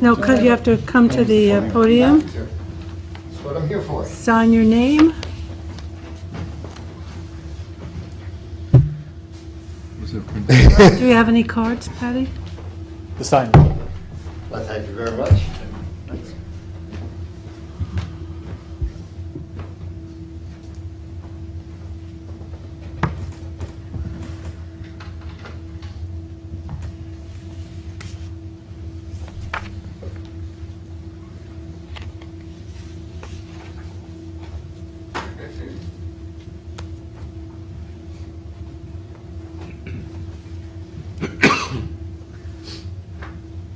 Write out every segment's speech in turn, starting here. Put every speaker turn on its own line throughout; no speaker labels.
No, because you have to come to the uh, podium,
That's what I'm here for.
sign your name. Do you have any cards, Patty?
The sign.
Well, thank you very much.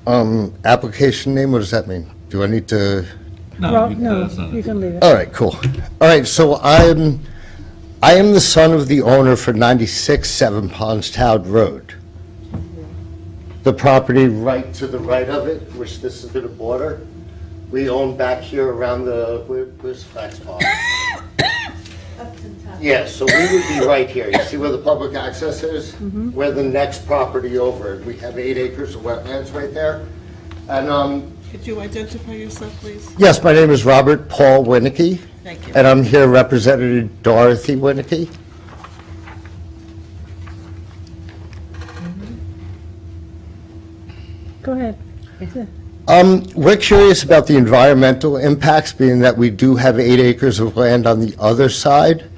Um, application name, what does that mean? Do I need to?
Oh,
Well, no, you can leave it.
All right, cool. All right, so I'm, I am the son of the owner for 96 Seven Ponds Town Road. The property right to the right of it, which this is the border, we own back here around the, where- where's Flax Pond? Yeah, so we would be right here. You see where the public access is? We're the next property over. We have eight acres of wetlands right there. And, um,
Could you identify yourself, please?
yes, my name is Robert Paul Winnicky.
Thank you.
And I'm here representing Dorothy Winnicky.
Mm-hmm. Go ahead.
Um, we're curious about the environmental impacts, being that we do have eight acres of land on the other side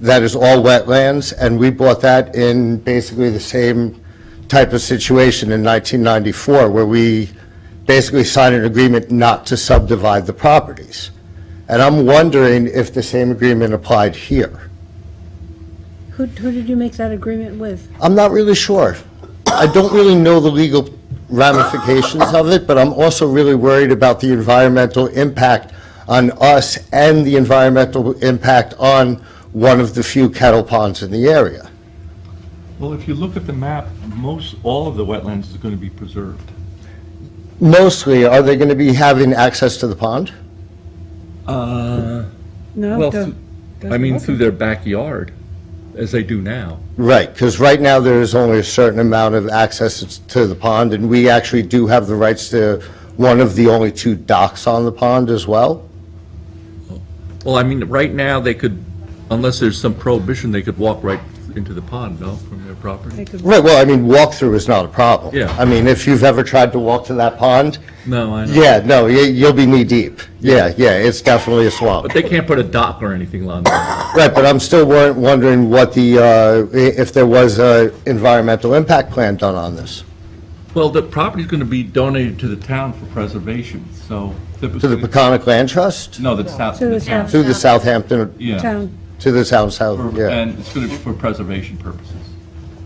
that is all wetlands, and we bought that in basically the same type of situation in 1994, where we basically signed an agreement not to subdivide the properties. And I'm wondering if the same agreement applied here.
Who, who did you make that agreement with?
I'm not really sure. I don't really know the legal ramifications of it, but I'm also really worried about the environmental impact on us and the environmental impact on one of the few kettle ponds in the area.
Well, if you look at the map, most, all of the wetlands is going to be preserved.
Mostly, are they going to be having access to the pond?
Uh,
No,
well,
don't-
through- I mean, through their backyard, as they do now.
Right, because right now there is only a certain amount of access to the pond, and we actually do have the rights to one of the only two docks on the pond as well.
Well, I mean, right now, they could, unless there's some prohibition, they could walk right into the pond, no, from their property?
Right, well, I mean, walkthrough is not a problem.
Yeah.
I mean, if you've ever tried to walk to that pond,
No, I know.
yeah, no, you, you'll be knee-deep. Yeah, yeah, it's definitely a swamp.
But they can't put a dock or anything on there.
Right, but I'm still wor- wondering what the, uh, i- if there was a environmental impact plan done on this,
Well, the property's going to be donated to the town for preservation, so.
to the Peconic Land Trust,
No, that's not,
To the
the town.
town.
to the Southampton,
Yeah.
Town,
to the town south, yeah.
And it's going to be for preservation purposes.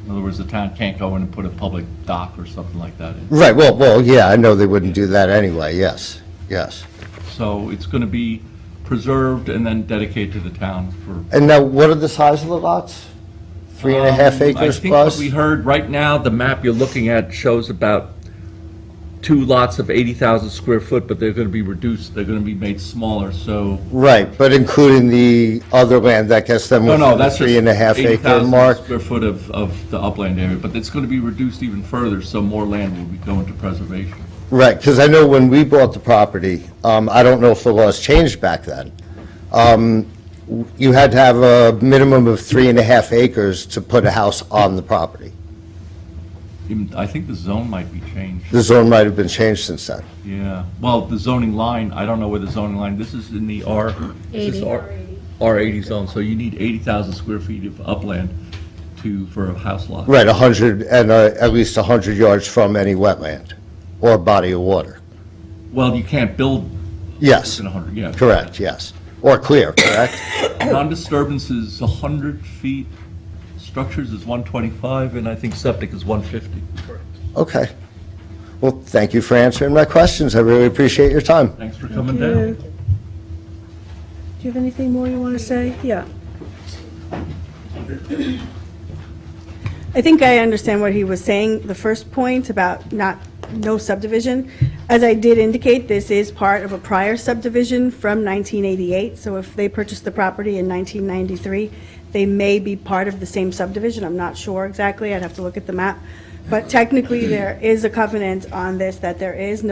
In other words, the town can't go in and put a public dock or something like that in.
Right, well, well, yeah, I know they wouldn't do that anyway, yes, yes.
So it's going to be preserved and then dedicated to the town for.
And now, what are the size of the lots? Three and a half acres
Um, I think what
plus?
we heard, right now, the map you're looking at shows about two lots of 80,000 square foot, but they're going to be reduced, they're going to be made smaller, so.
Right, but including the other land that gets them
No,
within
no,
the
that's just.
three and a half acre
80,000
mark?
Square foot of, of the upland area, but it's going to be reduced even further, so more land will be going to preservation.
Right, because I know when we bought the property, um, I don't know if the laws changed back then. um, You had to have a minimum of three and a half acres to put a house on the property.
Even- I think the zone might be changed,
The zone might have been changed since then.
yeah. Well, the zoning line, I don't know where the zoning line, this is in the R. this is R- R80 zone, so you need 80,000 square feet of upland to, for a house lot.
Right, 100, and uh, at least 100 yards from any wetland or body of water.
Well, you can't build
Yes,
in 100, yeah.
correct, yes. Or clear, correct?
Non-disturbance is 100 feet, structures is 125, and I think septic is 150.
Okay. Well, thank you for answering my questions. I really appreciate your time.
Thanks for coming
do you
down.
do you have anything more you want to say? Yeah.
I think I understand what he was saying, the first point about not, no subdivision. As I did indicate, this is part of a prior subdivision from 1988, so if they purchased the property in 1993, they may be part of the same subdivision, I'm not sure exactly, I'd have to look at the map. But technically, there is a covenant on this that there is no.